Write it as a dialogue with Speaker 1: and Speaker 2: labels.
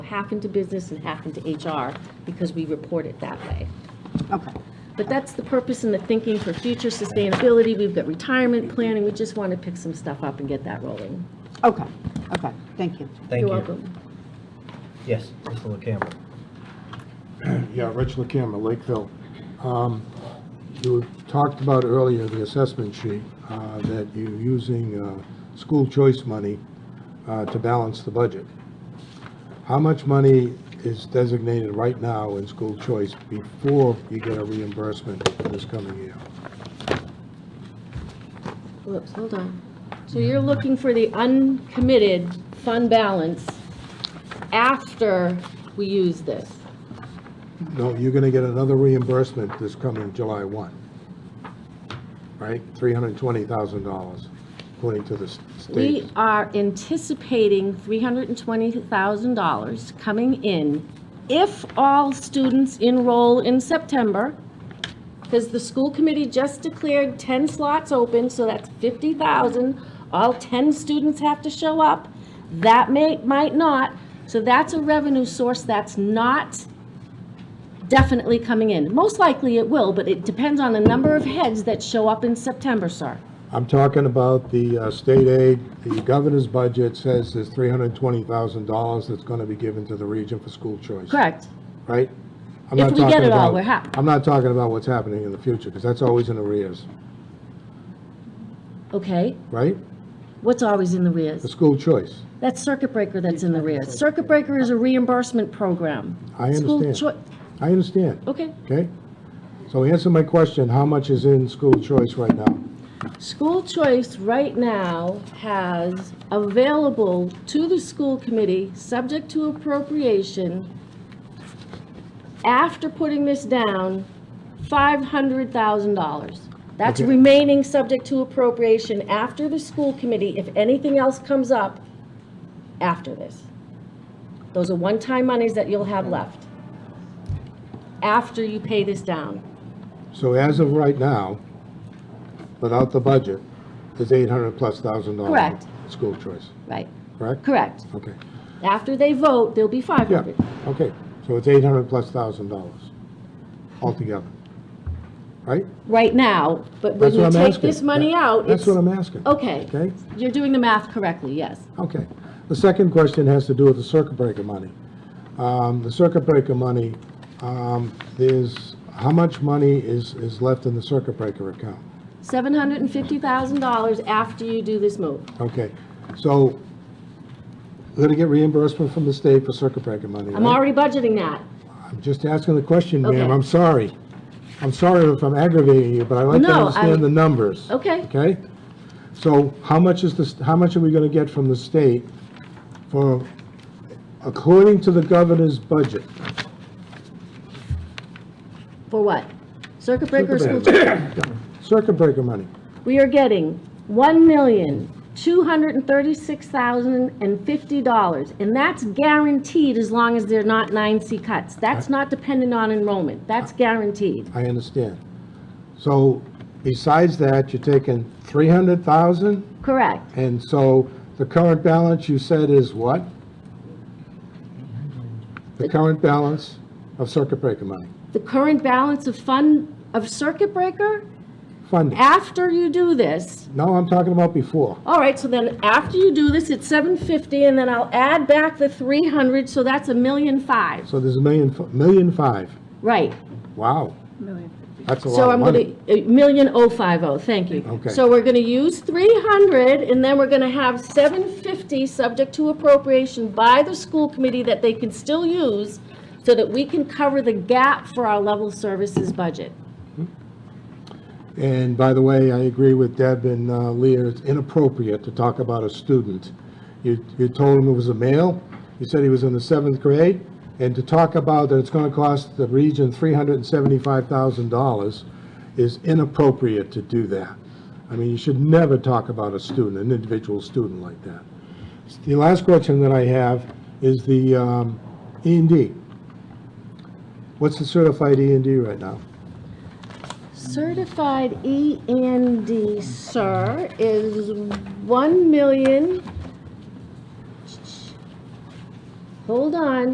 Speaker 1: half into business and half into HR because we report it that way.
Speaker 2: Okay.
Speaker 1: But that's the purpose and the thinking for future sustainability. We've got retirement planning. We just want to pick some stuff up and get that rolling.
Speaker 2: Okay, okay, thank you.
Speaker 3: Thank you.
Speaker 1: You're welcome.
Speaker 3: Yes, Mr. LaCamera.
Speaker 4: Yeah, Rich LaCamera, Lakeville. Um, You talked about earlier the assessment sheet, uh, that you're using uh, school choice money uh, to balance the budget. How much money is designated right now in school choice before you get a reimbursement for this coming year?
Speaker 1: Whoops, hold on. So you're looking for the uncommitted fund balance after we use this?
Speaker 4: No, you're going to get another reimbursement this coming July 1, right? $320,000, according to the s- state.
Speaker 1: We are anticipating $320,000 coming in if all students enroll in September, because the school committee just declared 10 slots open, so that's 50,000. All 10 students have to show up. That may, might not. So that's a revenue source that's not definitely coming in. Most likely it will, but it depends on the number of heads that show up in September, sir.
Speaker 4: I'm talking about the uh, state aid, the governor's budget says there's $320,000 that's going to be given to the region for school choice.
Speaker 1: Correct?
Speaker 4: Right? I'm
Speaker 1: If
Speaker 4: not
Speaker 1: we get
Speaker 4: talking
Speaker 1: it all,
Speaker 4: about-
Speaker 1: we're happy.
Speaker 4: I'm not talking about what's happening in the future, because that's always in arrears,
Speaker 1: Okay?
Speaker 4: right?
Speaker 1: What's always in the
Speaker 4: The
Speaker 1: rears?
Speaker 4: school choice.
Speaker 1: That's circuit breaker that's in the rears. Circuit breaker is a reimbursement program.
Speaker 4: I
Speaker 1: School
Speaker 4: understand.
Speaker 1: choi-
Speaker 4: I understand,
Speaker 1: Okay.
Speaker 4: okay? So answer my question, how much is in school choice right now?
Speaker 1: School choice right now has available to the school committee, subject to appropriation, after putting this down, $500,000. That's
Speaker 4: Okay.
Speaker 1: remaining subject to appropriation after the school committee, if anything else comes up after this. Those are one-time monies that you'll have left after you pay this down.
Speaker 4: So as of right now, without the budget, there's 800 plus thousand dollars.
Speaker 1: Correct.
Speaker 4: School choice,
Speaker 1: Right.
Speaker 4: correct?
Speaker 1: Correct.
Speaker 4: Okay.
Speaker 1: After they vote, there'll be
Speaker 4: Yeah,
Speaker 1: 500.
Speaker 4: okay, so it's eight hundred plus thousand dollars altogether, right?
Speaker 1: right now, but when
Speaker 4: That's
Speaker 1: you
Speaker 4: what I'm
Speaker 1: take this
Speaker 4: asking.
Speaker 1: money out, it's,
Speaker 4: That's what I'm asking.
Speaker 1: okay,
Speaker 4: Okay.
Speaker 1: you're doing the math correctly, yes.
Speaker 4: Okay. The second question has to do with the circuit breaker money. Um, the circuit breaker money, um, there's, how much money is, is left in the circuit breaker account?
Speaker 1: $750,000 after you do this move.
Speaker 4: Okay, so we're gonna get reimbursement from the state for circuit breaker money,
Speaker 1: I'm
Speaker 4: right?
Speaker 1: already budgeting that.
Speaker 4: I'm just asking the question,
Speaker 1: Okay.
Speaker 4: ma'am, I'm sorry. I'm sorry if I'm aggravating you, but I like to
Speaker 1: No, I'm-
Speaker 4: understand the numbers.
Speaker 1: Okay.
Speaker 4: Okay? So how much is this, how much are we gonna get from the state for, according to the governor's budget?
Speaker 1: For what? Circuit breaker or school?
Speaker 4: Circuit Circuit breaker money,
Speaker 1: We are getting $1,236,050, and that's guaranteed as long as they're not 9C cuts. That's not dependent on enrollment. That's guaranteed.
Speaker 4: I understand. So besides that, you're taking three hundred thousand,
Speaker 1: Correct.
Speaker 4: and so the current balance you said is what? The current balance of circuit breaker money,
Speaker 1: The current balance of fund, of circuit breaker,
Speaker 4: funding.
Speaker 1: after you do this,
Speaker 4: No, I'm talking about before.
Speaker 1: All right, so then after you do this, it's seven fifty, and then I'll add back the three hundred, so that's a million five.
Speaker 4: So there's a million, f- million five.
Speaker 1: Right,
Speaker 4: Wow. That's
Speaker 1: so
Speaker 4: a lot of
Speaker 1: I'm gonna,
Speaker 4: money.
Speaker 1: a million oh five oh, thank you.
Speaker 4: Okay.
Speaker 1: So we're gonna use three hundred, and then we're gonna have seven fifty, subject to appropriation by the school committee that they can still use, so that we can cover the gap for our level services budget.
Speaker 4: And by the way, I agree with Deb and uh, Leah, it's inappropriate to talk about a student. You, you told him it was a male, you said he was in the seventh grade, and to talk about that it's gonna cost the region three hundred and seventy-five thousand dollars is inappropriate to do that. I mean, you should never talk about a student, an individual student like that. The last question that I have is the um, E and D. What's the certified E and D right now?
Speaker 1: Certified E and D, sir, is one million. Hold on.